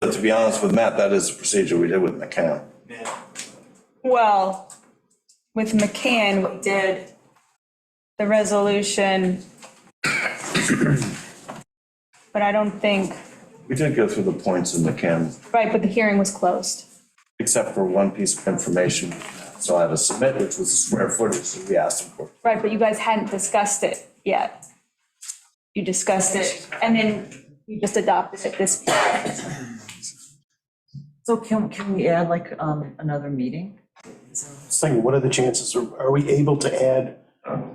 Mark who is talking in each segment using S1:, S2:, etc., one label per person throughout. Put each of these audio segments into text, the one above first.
S1: But to be honest with Matt, that is the procedure we did with McCann.
S2: Yeah.
S3: Well, with McCann, we did the resolution. But I don't think,
S1: We did go through the points in McCann,
S3: right, but the hearing was closed.
S1: except for one piece of information. So I had to submit, which was the square footage that we asked him for.
S3: Right, but you guys hadn't discussed it yet. You discussed it, and then you just adopted it this,
S4: So can, can we add like, um, another meeting?
S5: Just thinking, what are the chances? Are are we able to add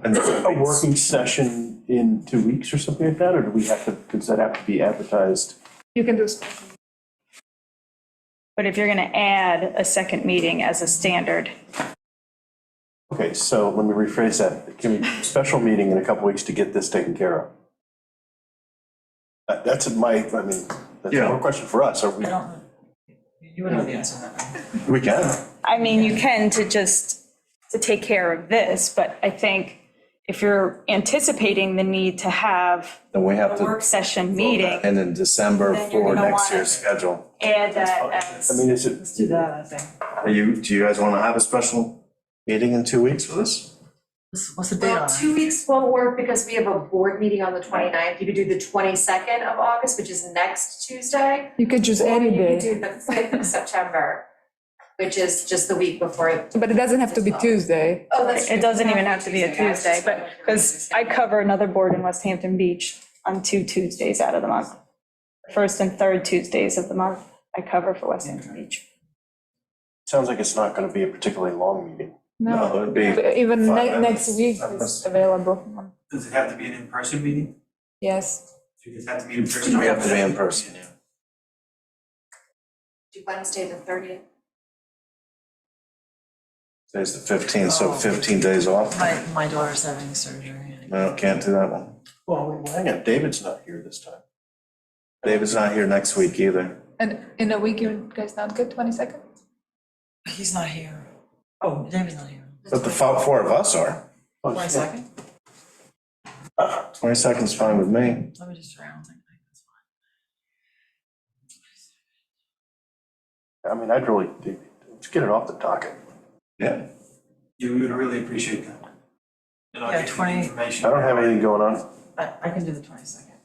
S1: And
S5: a working session in two weeks or something like that? Or do we have to, does that have to be advertised?
S6: You can do, s-
S3: but if you're gonna add a second meeting as a standard,
S5: Okay, so let me rephrase that. Can we, special meeting in a couple weeks to get this taken care of? That- That's my, I mean, that's
S1: Yeah.
S5: more a question for us. Are we,
S4: I don't know. You would know the answer to that. right?
S1: we can.
S3: I mean, you can to just, to take care of this, but I think if you're anticipating the need to have
S1: Then we have
S3: a work
S1: to.
S3: session meeting, uh,
S1: And in December
S3: Then you're
S1: for
S3: gonna
S1: next
S3: wanna-
S1: year's schedule.
S3: add that as.
S5: I mean, is it,
S4: Let's do that, I think.
S1: Are you, do you guys want to have a special meeting in two weeks for this?
S4: What's, what's the date on
S7: Well,
S4: it?
S7: two weeks won't work because we have a board meeting on the 29th. You could do the twenty-second of August, which is next Tuesday.
S6: you could choose any
S7: Or you
S6: day,
S7: could do the fifth of September, which is just the week before.
S6: but it doesn't have to be Tuesday.
S7: Oh, that's
S3: It
S7: true.
S3: doesn't even have to be a
S7: I was just
S3: Tuesday, but, because I cover another board in West Hampton Beach on two Tuesdays out of the month. First and third Tuesdays of the month, I cover for West Hampton Beach.
S5: sounds like it's not gonna be a particularly long meeting.
S1: No, it'd be.
S6: Even
S1: Five
S6: ne- next
S1: minutes.
S6: week
S1: Five
S6: is
S1: minutes.
S6: available,
S2: Does it have to be an in-person meeting?
S6: yes.
S2: Do you just have to meet in person?
S1: We have to be in person, yeah.
S7: Do Wednesday the thirtieth.
S1: Today's the fifteenth,
S3: Oh.
S1: so fifteen days off.
S4: My, my daughter's having surgery.
S1: No, can't do that one.
S5: Well, hang on, David's not here this time.
S1: David's not here next week either.
S6: And in a week, you guys not get twenty-second?
S4: He's not here. Oh, David's not here.
S1: But the fo- four of us are.
S5: Oh,
S4: One
S5: yeah.
S4: second,
S1: Twenty second's fine with me.
S4: let me just try, I don't think that's fine.
S5: I mean, I'd really, let's get it off the docket.
S1: Yeah.
S2: You would really appreciate that. And I'll
S4: Yeah,
S2: get you the
S4: 20
S2: information.
S5: I don't have anything going on.
S4: I, I can do the twenty-second.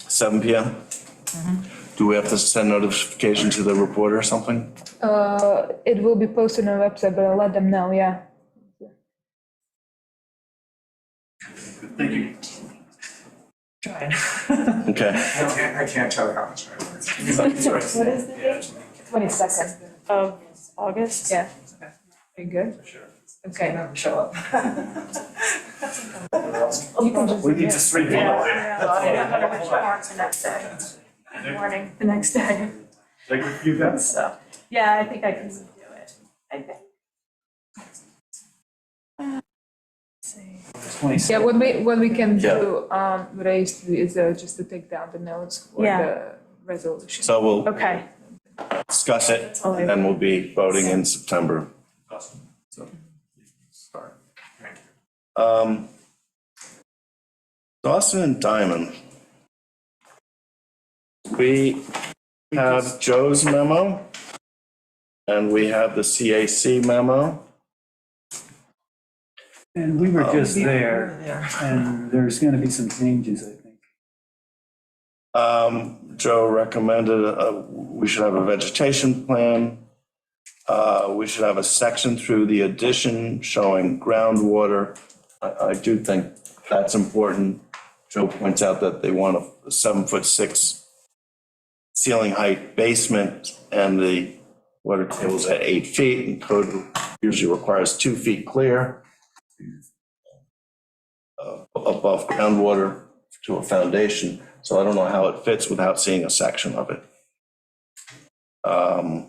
S1: Seven PM?
S2: Mm-hmm.
S1: Do we have to send notification to the reporter or something?
S6: Uh, it will be posted on the website, but I'll let them know, yeah.
S2: Thank you.
S4: Trying.
S1: Okay.
S2: I can't, I can't tell how much I work. What is the date?
S6: Twenty-second.
S3: Of August?
S6: Yeah. Are you good?
S2: Sure.
S4: Okay, never show up.
S1: Oh,
S6: You can just.
S2: We need to sleep on that.
S3: Morning, the next day.
S2: Like, you guys.
S3: So, yeah, I think I can do it. I think.
S6: Yeah, what we, what we can
S1: Yeah.
S6: do, um, raise is uh, just to take down the notes for
S3: Yeah.
S6: the resolution.
S1: So we'll
S3: Okay,
S1: discuss it and then we'll be voting in September.
S2: Sorry. Thank you.
S1: Um, Dawson and Diamond. We have Joe's memo, and we have the CAC memo.
S8: And we were
S1: Oh.
S8: just
S4: We're
S8: there,
S4: There.
S8: and there's gonna be some changes, I think.
S1: Um, Joe recommended, uh, we should have a vegetation plan. Uh, we should have a section through the addition showing groundwater. I, I do think that's important. Joe points out that they want a seven foot six ceiling height basement and the water table's at eight feet and code usually requires two feet clear uh, above groundwater to a foundation, so I don't know how it fits without seeing a section of it. Um,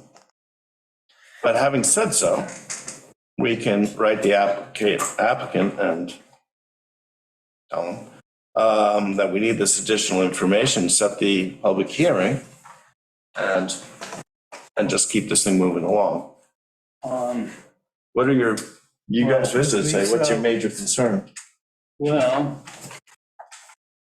S1: But having said so, we can write the applicant, applicant and tell them um, that we need this additional information, set the public hearing, and, and just keep this thing moving along.
S8: Um,
S1: What are your, you guys
S8: Well,
S1: visited, say, what's your
S8: Lisa-
S1: major concern?
S8: well,